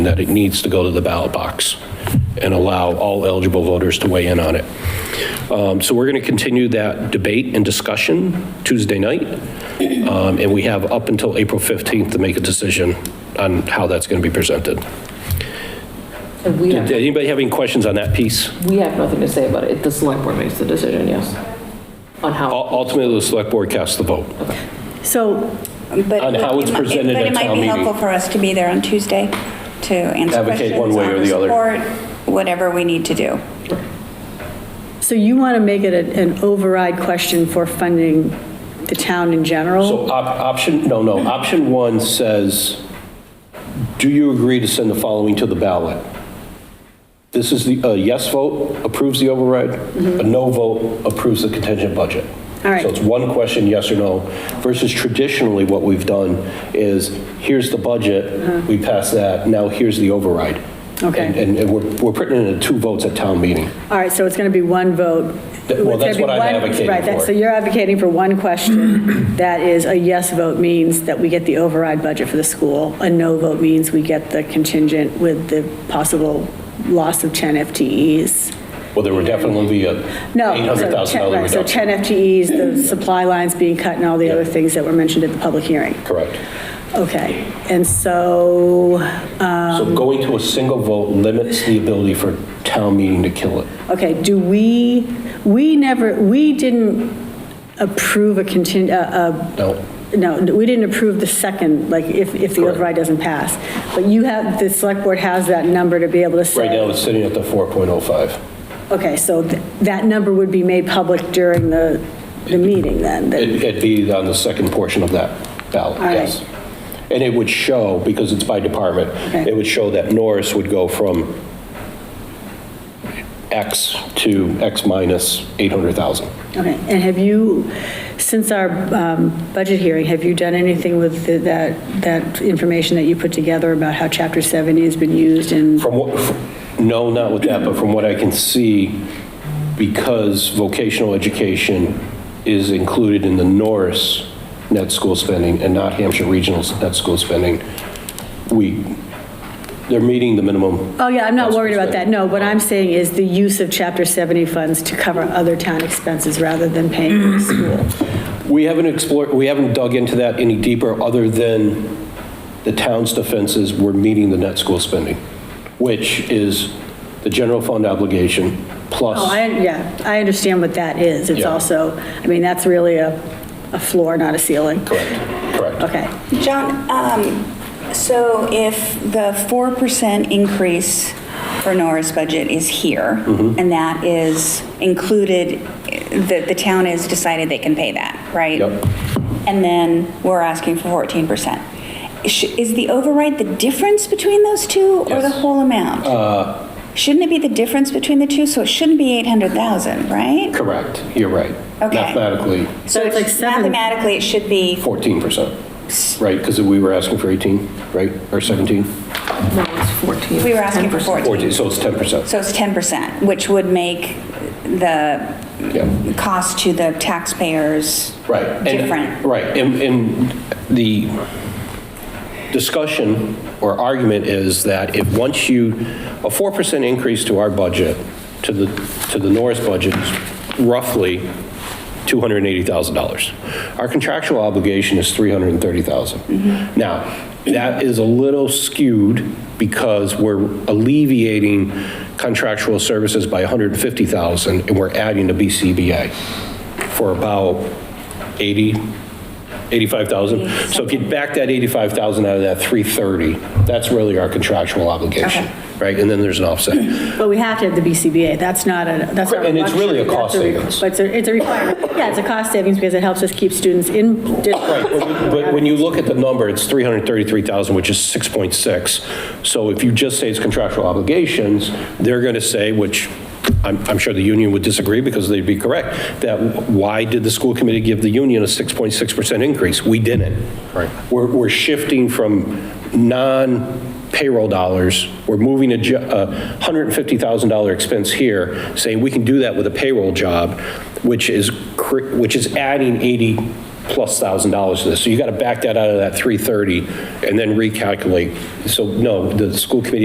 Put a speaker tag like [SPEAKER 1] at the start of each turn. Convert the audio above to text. [SPEAKER 1] that it needs to go to the ballot box and allow all eligible voters to weigh in on it. Um, So we're going to continue that debate and discussion Tuesday night, Um, and we have up until April 15th to make a decision on how that's going to be presented.
[SPEAKER 2] And we
[SPEAKER 1] Did
[SPEAKER 2] have,
[SPEAKER 1] anybody have any questions on that piece?
[SPEAKER 2] we have nothing to say about it. The select board makes the decision, yes. On
[SPEAKER 1] U-
[SPEAKER 2] how,
[SPEAKER 1] Ultimately, the select board casts the vote.
[SPEAKER 3] So,
[SPEAKER 4] But
[SPEAKER 1] On
[SPEAKER 4] it
[SPEAKER 1] how
[SPEAKER 4] would-
[SPEAKER 1] it's
[SPEAKER 4] it might-
[SPEAKER 1] presented at
[SPEAKER 4] But
[SPEAKER 1] town
[SPEAKER 4] it might be
[SPEAKER 1] meeting.
[SPEAKER 4] helpful for us to be there on Tuesday to answer
[SPEAKER 1] Advocate
[SPEAKER 4] questions,
[SPEAKER 1] one way or
[SPEAKER 4] offer
[SPEAKER 1] the other.
[SPEAKER 4] support, whatever we need to do.
[SPEAKER 3] so you want to make it a- an override question for funding the town in general?
[SPEAKER 1] So op- option, no, no, option one says, do you agree to send the following to the ballot? This is the, a yes vote approves the override, a no vote approves the contingent budget.
[SPEAKER 3] Mm-hmm. All right.
[SPEAKER 1] So it's one question, yes or no, versus traditionally what we've done is, here's the budget, we pass that, now here's the override.
[SPEAKER 3] Uh-huh. Okay.
[SPEAKER 1] And- And, and we're, we're putting it in two votes at town meeting.
[SPEAKER 3] All right, so it's going to be one
[SPEAKER 1] Th-
[SPEAKER 3] vote.
[SPEAKER 1] well,
[SPEAKER 3] It's gonna
[SPEAKER 1] that's
[SPEAKER 3] be
[SPEAKER 1] what I'm
[SPEAKER 3] one-
[SPEAKER 1] advocating
[SPEAKER 3] Right, that-
[SPEAKER 1] for.
[SPEAKER 3] so you're advocating for one question, that is a yes vote means that we get the override budget for the school, a no vote means we get the contingent with the possible loss of 10 FTEs.
[SPEAKER 1] Well, there would definitely be a
[SPEAKER 3] No. so
[SPEAKER 1] $800,000 reduction.
[SPEAKER 3] 10 right, So 10 FTEs, the supply lines being cut and all the other things that were mentioned at the public hearing.
[SPEAKER 1] Correct.
[SPEAKER 3] Okay, and so, Um,
[SPEAKER 1] So going to a single vote limits the ability for town meeting to kill it.
[SPEAKER 3] okay, do we, we never, we didn't approve a contin, uh,
[SPEAKER 1] No,
[SPEAKER 3] uh, no, we didn't approve the second, like, if, if the
[SPEAKER 1] Correct.
[SPEAKER 3] override doesn't pass. But you have, the select board has that number to be able to say.
[SPEAKER 1] right now it's sitting at the 4.05.
[SPEAKER 3] Okay, so th- that number would be made public during the, the meeting then? that-
[SPEAKER 1] It- It'd be on the second portion of that ballot,
[SPEAKER 3] All right.
[SPEAKER 1] yes. And it would show, because it's by department,
[SPEAKER 3] Okay.
[SPEAKER 1] it would show that Norris would go from X to X minus 800,000.
[SPEAKER 3] Okay, and have you, since our um, budget hearing, have you done anything with the- that, that information that you put together about how Chapter 70 has been used in,
[SPEAKER 1] From what, no, not with that, but from what I can see, because vocational education is included in the Norris net school spending and not Hampshire Regional's net school spending, we, they're meeting the minimum.
[SPEAKER 3] oh yeah, I'm not worried about that, no, what I'm saying is the use of Chapter 70 funds to cover other town expenses rather than paying for the school.
[SPEAKER 1] We haven't explored, we haven't dug into that any deeper, other than the town's defenses were meeting the net school spending, which is the general fund obligation plus.
[SPEAKER 3] Oh, I, yeah, I understand what that is, it's
[SPEAKER 1] Yeah.
[SPEAKER 3] also, I mean, that's really a, a floor, not a ceiling.
[SPEAKER 1] Correct, correct.
[SPEAKER 3] Okay,
[SPEAKER 4] John, um, so if the 4% increase for Nora's budget is here,
[SPEAKER 1] Mm-hmm.
[SPEAKER 4] and that is included, the, the town has decided they can pay that, right?
[SPEAKER 1] Yep.
[SPEAKER 4] And then we're asking for 14%. Sh- Is the override the difference between those two or the
[SPEAKER 1] Yes. Uh,
[SPEAKER 4] whole amount? Shouldn't it be the difference between the two? So it shouldn't be 800,000, right?
[SPEAKER 1] Correct, you're right.
[SPEAKER 4] Okay.
[SPEAKER 1] Mathematically,
[SPEAKER 3] So it's like seven-
[SPEAKER 4] Mathematically, it should be
[SPEAKER 1] 14%, right? Because we were asking for 18, right? Or 17?
[SPEAKER 2] no, it's 14.
[SPEAKER 4] We were asking for
[SPEAKER 2] 10%.
[SPEAKER 4] 14.
[SPEAKER 1] 14, so it's 10%.
[SPEAKER 4] So it's 10%, which would make the
[SPEAKER 1] Yeah.
[SPEAKER 4] cost to the taxpayers
[SPEAKER 1] Right. and-
[SPEAKER 4] different.
[SPEAKER 1] Right, and, and the discussion or argument is that if, once you, a 4% increase to our budget, to the, to the Norris budget, is roughly $280,000. Our contractual obligation is 330,000. Now, that is a little skewed because we're alleviating contractual services by 150,000 and we're adding to BCBA for about 80, 85,000. So if you back that 85,000 out of that 330, that's really our contractual obligation, right? And then there's an offset.
[SPEAKER 3] but we have to have the BCBA, that's not a, that's not a
[SPEAKER 1] And it's really a
[SPEAKER 3] luxury, that's
[SPEAKER 1] cost savings.
[SPEAKER 3] re- But it's a, it's a requirement, yeah, it's a cost savings because it helps us keep students in
[SPEAKER 1] Right,
[SPEAKER 3] district.
[SPEAKER 1] but when- but when you look at the number, it's 333,000, which is 6.6. So if you just say it's contractual obligations, they're going to say, which I'm, I'm sure the union would disagree because they'd be correct, that why did the school committee give the union a 6.6% increase? We didn't. Right. We're, we're shifting from non-payroll dollars, we're moving a jo- a $150,000 expense here, saying we can do that with a payroll job, which is, cr- which is adding 80 plus thousand dollars to this. So you got to back that out of that 330 and then recalculate. So no, the school committee